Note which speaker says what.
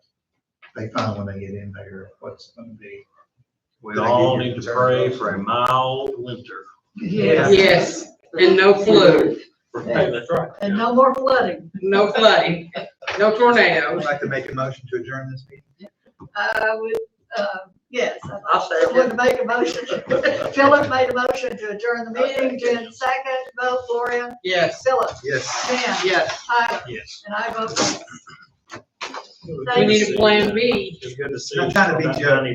Speaker 1: they find when they get in there, what's gonna be.
Speaker 2: We all need to pray for a mild winter.
Speaker 3: Yes.
Speaker 4: Yes, and no flu,
Speaker 2: That's right.
Speaker 3: And no more flooding.
Speaker 4: no flooding, no tornadoes.
Speaker 1: like to make a motion to adjourn this meeting.
Speaker 3: I would, uh, yes, I-
Speaker 5: I'll say
Speaker 3: I would make a motion. Philip made a motion to adjourn the meeting, Jen second, vote Gloria,
Speaker 4: Yes,
Speaker 3: Philip,
Speaker 1: Yes.
Speaker 3: Jan,
Speaker 5: Yes.
Speaker 3: I,
Speaker 2: Yes.
Speaker 3: and I vote
Speaker 4: we need a plan B.
Speaker 2: It's good to see.
Speaker 1: I'm trying to be
Speaker 2: About
Speaker 1: generous.